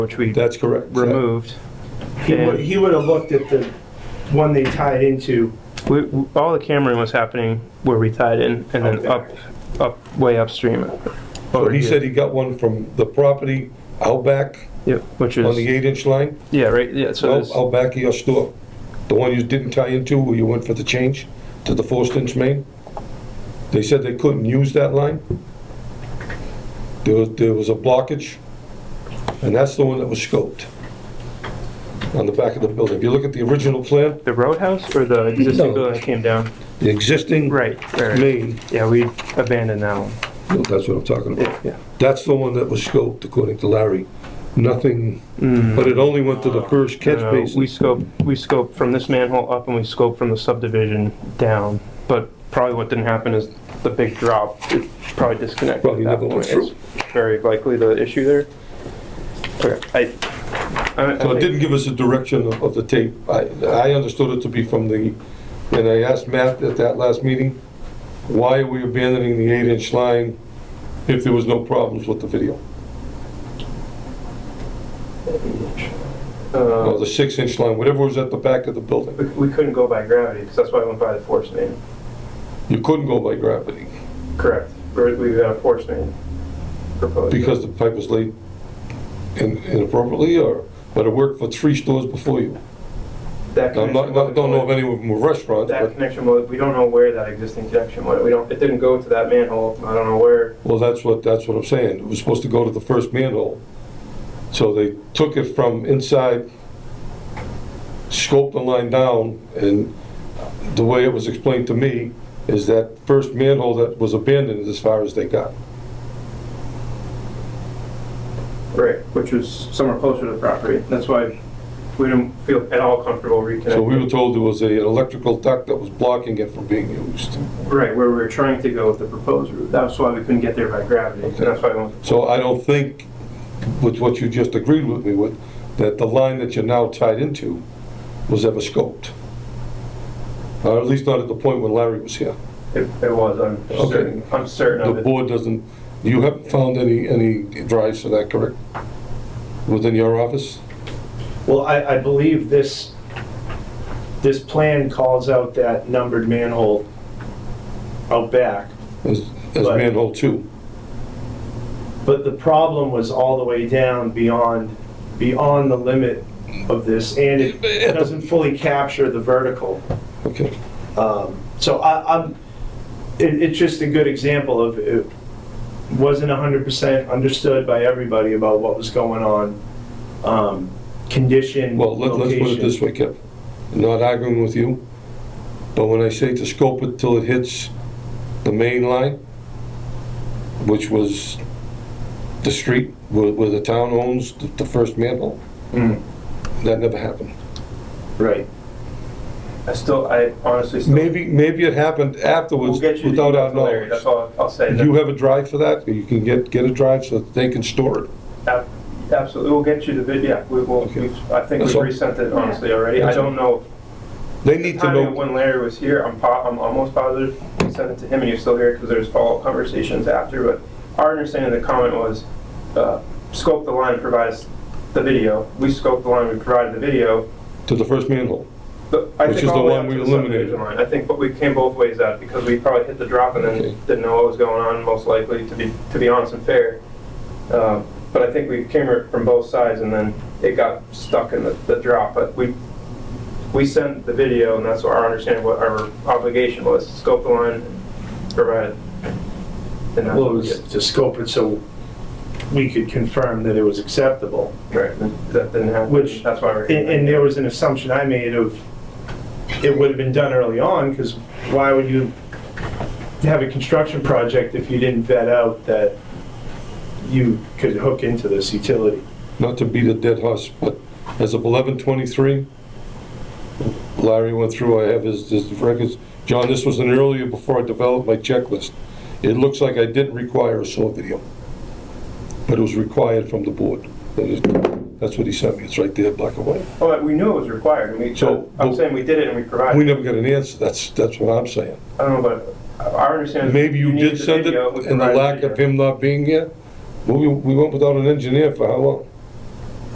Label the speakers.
Speaker 1: which we
Speaker 2: That's correct.
Speaker 1: removed.
Speaker 3: He would, he would have looked at the one they tied into.
Speaker 1: We, we- all the Cameron was happening where we tied in and then up, up, way upstream. Oh,
Speaker 2: So Oh, he said he got one from the property out back
Speaker 1: Yep, which
Speaker 2: on the Oh,
Speaker 1: is,
Speaker 2: eight inch line,
Speaker 1: yeah, right, yeah, so
Speaker 2: out
Speaker 1: there's,
Speaker 2: out back of your store. The one you didn't tie into where you went for the change to the four inch main. They said they couldn't use that line. There was, there was a blockage, and that's the one that was scoped on the back of the building. If you look at the original plan,
Speaker 1: the roadhouse or the
Speaker 2: No.
Speaker 1: existing building that came down?
Speaker 2: the existing
Speaker 1: Right, right, right.
Speaker 2: main,
Speaker 1: yeah, we abandoned that one,
Speaker 2: no, that's what I'm talking about.
Speaker 1: yeah, yeah.
Speaker 2: That's the one that was scoped, according to Larry. Nothing, but it only went to the first catch
Speaker 1: No, no, We
Speaker 2: basin.
Speaker 1: scoped, we scoped from this manhole up and we scoped from the subdivision down, but probably what didn't happen is the big drop, it probably disconnected.
Speaker 2: Probably
Speaker 1: at that
Speaker 2: never went
Speaker 1: point. It's Very likely the issue there. Okay, I, I, I
Speaker 2: So it
Speaker 1: think-
Speaker 2: didn't give us a direction of, of the tape. I, I understood it to be from the, and I asked Matt at that last meeting, why are we abandoning the eight-inch line if there was no problems with the video? Or
Speaker 1: uh,
Speaker 2: the six-inch line, whatever was at the back of the building.
Speaker 1: we, we couldn't go by gravity, because that's why I went by the force main.
Speaker 2: You couldn't go by gravity
Speaker 1: Correct. We're- We've got a force main proposed.
Speaker 2: because the pipe was laid in- inappropriately or, but it worked for three stores before you.
Speaker 1: That
Speaker 2: I'm not,
Speaker 1: connection
Speaker 2: not- don't know if
Speaker 1: wasn't-
Speaker 2: any of them were restaurants,
Speaker 1: That
Speaker 2: but,
Speaker 1: connection was, we don't know where that existing connection went. We don't, it didn't go to that manhole. I don't know where.
Speaker 2: well, that's what, that's what I'm saying. It was supposed to go to the first manhole. So they took it from inside, scoped the line down, and the way it was explained to me is that first manhole that was abandoned as far as they got.
Speaker 1: Right, which was somewhere closer to the property. That's why we didn't feel at all comfortable reconnecting.
Speaker 2: So we were told there was a- an electrical duct that was blocking it from being used.
Speaker 1: Right, where we were trying to go with the proposed route. That's why we couldn't get there by gravity. And that's why I went,
Speaker 2: So I don't think, with what you just agreed with me with, that the line that you're now tied into was ever scoped. Or at least not at the point when Larry was here.
Speaker 1: it it was, I'm
Speaker 2: Okay.
Speaker 1: certain, I'm certain
Speaker 2: The
Speaker 1: of it.
Speaker 2: board doesn't, you haven't found any, any drives for that, correct? Within your office?
Speaker 3: Well, I, I believe this, this plan calls out that numbered manhole out back.
Speaker 2: As, as
Speaker 3: Right.
Speaker 2: manhole two?
Speaker 3: But the problem was all the way down beyond, beyond the limit of this, and it doesn't fully capture the vertical.
Speaker 2: Okay.
Speaker 3: Um, So I, I'm, it, it's just a good example of it wasn't hundred percent understood by everybody about what was going on. Um, condition,
Speaker 2: Well, let- let's put it
Speaker 3: location.
Speaker 2: this way, Kev. Not arguing with you, but when I say to scope it till it hits the main line, which was the street where where the town owns the- the first manhole,
Speaker 3: Mm,
Speaker 2: that never happened.
Speaker 3: Right.
Speaker 1: I still, I honestly still.
Speaker 2: Maybe, maybe it happened
Speaker 1: We'll
Speaker 2: afterwards
Speaker 1: get you the
Speaker 2: without
Speaker 1: email
Speaker 2: our
Speaker 1: to Larry.
Speaker 2: knowledge.
Speaker 1: That's all I'll say.
Speaker 2: Do you have a drive for that? You can get, get a drive so that they can store it?
Speaker 1: Ab- Absolutely, we'll get you the vid, yeah, we will,
Speaker 2: Okay.
Speaker 1: we've- I think
Speaker 2: That's
Speaker 1: we've
Speaker 2: all.
Speaker 1: resent it honestly already. I
Speaker 2: That's all.
Speaker 1: don't know,
Speaker 2: They
Speaker 1: the
Speaker 2: need to
Speaker 1: timing of
Speaker 2: know,
Speaker 1: when Larry was here, I'm po, I'm almost positive we sent it to him and he was still here because there's follow-up conversations after, but our understanding of the comment was, uh, scope the line, provide us the video. We scoped the line, we provided the video,
Speaker 2: to the first manhole.
Speaker 1: but I
Speaker 2: Which
Speaker 1: think
Speaker 2: is
Speaker 1: all
Speaker 2: the
Speaker 1: the way
Speaker 2: one
Speaker 1: up
Speaker 2: we
Speaker 1: to the
Speaker 2: eliminated.
Speaker 1: subdivision line. I think, but we came both ways out because we probably hit the drop and
Speaker 2: Okay.
Speaker 1: then didn't know what was going on, most likely, to be, to be honest and fair. Um, But I think we came r- from both sides and then it got stuck in the, the drop, but we, we sent the video and that's what our understanding, what our obligation was, scope the line, provide it. And that's
Speaker 3: Well,
Speaker 1: what
Speaker 3: it
Speaker 1: we
Speaker 3: was
Speaker 1: did.
Speaker 3: to scope it so we could confirm that it was acceptable.
Speaker 1: Right, and that didn't happen,
Speaker 3: Which-
Speaker 1: that's why we're.
Speaker 3: And, and there was an assumption I made of, it would have been done early on, because why would you have a construction project if you didn't vet out that you could hook into this utility?
Speaker 2: not to beat a dead horse, but as of eleven twenty-three, Larry went through, I have his, his records. John, this was an earlier before I developed my checklist. It looks like I didn't require a saw video, but it was required from the board. That is- That's what he sent me, it's right there, black and white.
Speaker 1: Well, we knew it was required, and we,
Speaker 2: So-
Speaker 1: I'm saying we did it and we provided.
Speaker 2: We never got an answer, that's, that's what I'm saying.
Speaker 1: I don't know, but our understanding.
Speaker 2: Maybe you did send it, and the lack of him not being here, Well, we, we went without an engineer for how long?